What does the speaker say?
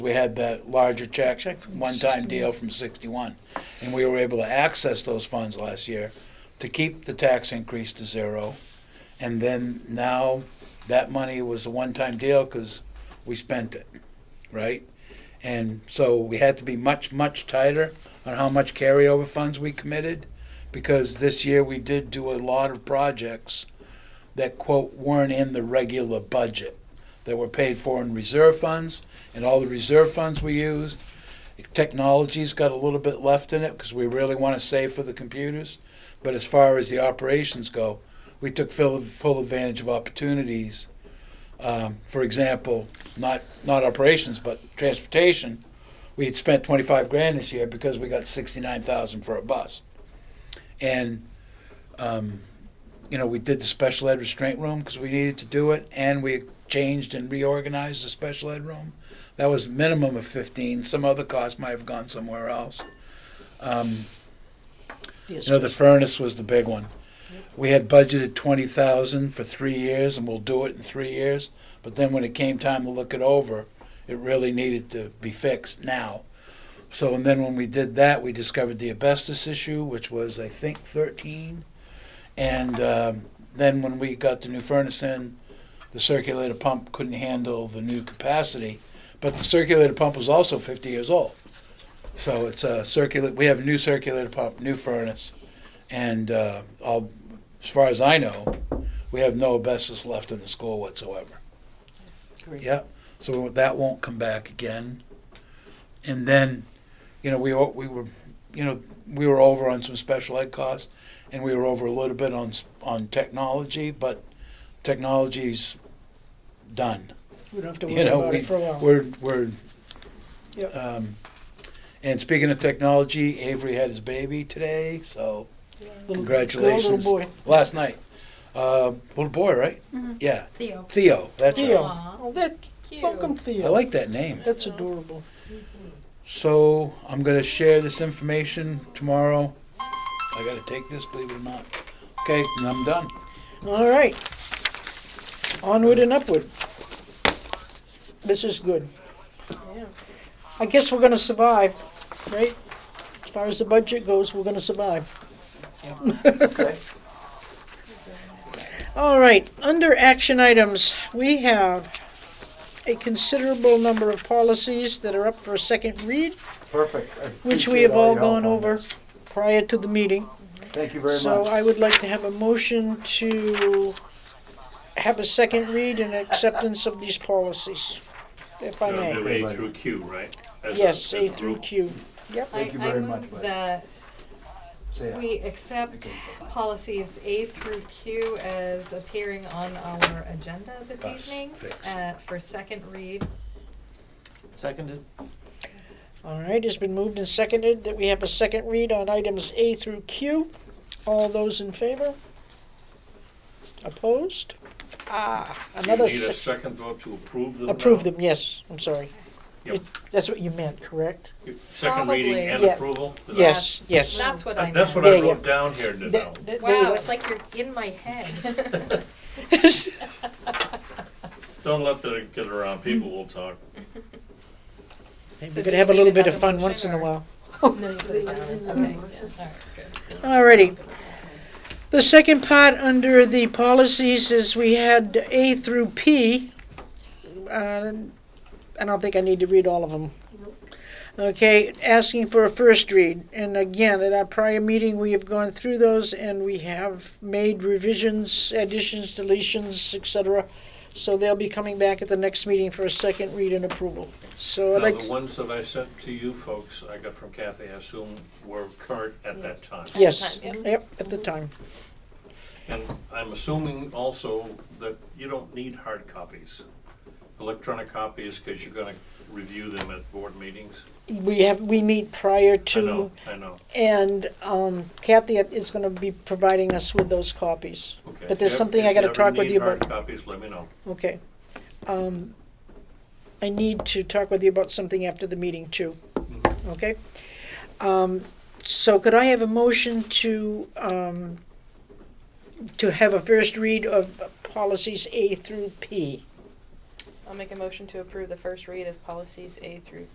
We had that larger check, Check from one-time deal from 61, and we were able to access those funds last year to keep the tax increase to zero. And then now, that money was a one-time deal because we spent it, right? And so we had to be much, much tighter on how much carryover funds we committed, because this year we did do a lot of projects that quote weren't in the regular budget, that were paid for in reserve funds, and all the reserve funds we used. Technology's got a little bit left in it because we really want to save for the computers. But as far as the operations go, we took full, full advantage of opportunities. Um, for example, not not operations, but transportation. We had spent 25 grand this year because we got 69,000 for a bus. And um, you know, we did the special ed restraint room because we needed to do it, and we changed and reorganized the special ed room. That was minimum of fifteen. Some other costs might have gone somewhere else. Um, Yes, you know, the furnace was the big one. We had budgeted twenty thousand for three years, and we'll do it in three years. But then when it came time to look it over, it really needed to be fixed now. So, and then when we did that, we discovered the asbestos issue, which was I think thirteen. And um, then when we got the new furnace in, the circulator pump couldn't handle the new capacity. But the circulator pump was also fifty years old. So it's a circular. We have a new circulator pump, new furnace, and uh, all, as far as I know, we have no asbestos left in the school whatsoever. great. Yeah, so that won't come back again. And then, you know, we, o- we were, you know, we were over on some special ed costs, and we were over a little bit on, s- on technology, but technology's done. We don't have to worry You know, about we, it for a while. we're, we're, Oh. Yep. um, and speaking of technology, Avery had his baby today, so Little girl, congratulations. Little boy. Last night, uh, little boy, right? Yeah, Theo. Theo, that's right. Mm-hmm. Theo. Aw, Oh, that, cute. welcome I Theo. like that name. That's adorable. So I'm gonna share this information tomorrow. I gotta take this, believe it or not. Okay, and I'm done. All right. Onward and upward. This is good. Yeah. I guess we're gonna survive, right? As far as the budget goes, we're gonna survive. All right, under action items, we have a considerable number of policies that are up for a second read, Perfect. I which we appreciate have all your help gone on over this. prior to the meeting. Thank you very So uh, much. I would like to have a motion to have a second read and acceptance of these policies, if I So may. they're Everybody. A through Q, right? As Yes, as A through group. Q. Thank you I- very much, I move bud. that Say it. we accept policies A through Q as appearing on our agenda this Bus evening fix. uh, for second read. Seconded. All right, it's been moved and seconded that we have a second read on items A through Q. All those in favor? Opposed? Ah, You another need a sec- second vote to approve them? approve now? them, yes, I'm sorry. Yep. It- That's what you meant, correct? Second reading Probably. and Yeah. approval? Is that- Yes, yes. That's what I That- meant. That's what Yeah, I yeah. wrote down here, Nadal. Th- th- Wow, they- it's like you're in my head. Don't let that get around, people will talk. Maybe So we do could have a we little need bit of another fun motion, once in a or- while. Okay, yeah, alright, good. Alrighty. The second part under the policies is we had A through P. Uh, I don't think I need to read all of them. Okay, asking for a first read. And again, at our prior meeting, we have gone through those and we have made revisions, additions, deletions, etc. So they'll be coming back at the next meeting for a second read and approval. So I'd Now, like, the ones that I sent to you folks, I got from Kathy, I assume were current at that time. yes, Yep. yep, at the time. And I'm assuming also that you don't need hard copies. Electronic copies, because you're gonna review them at board meetings. We have, we meet prior to. I know, I know, And um, Kathy is going to be providing us with those copies. okay. But there's If- something I if gotta ever talk with need you about. hard copies, let me know. Okay. Um, I need to talk with you about something after the meeting too. Mm-hmm. Okay? Um, so could I have a motion to, um, to have a first read of policies A through P? I'll make a motion to approve the first read of policies A through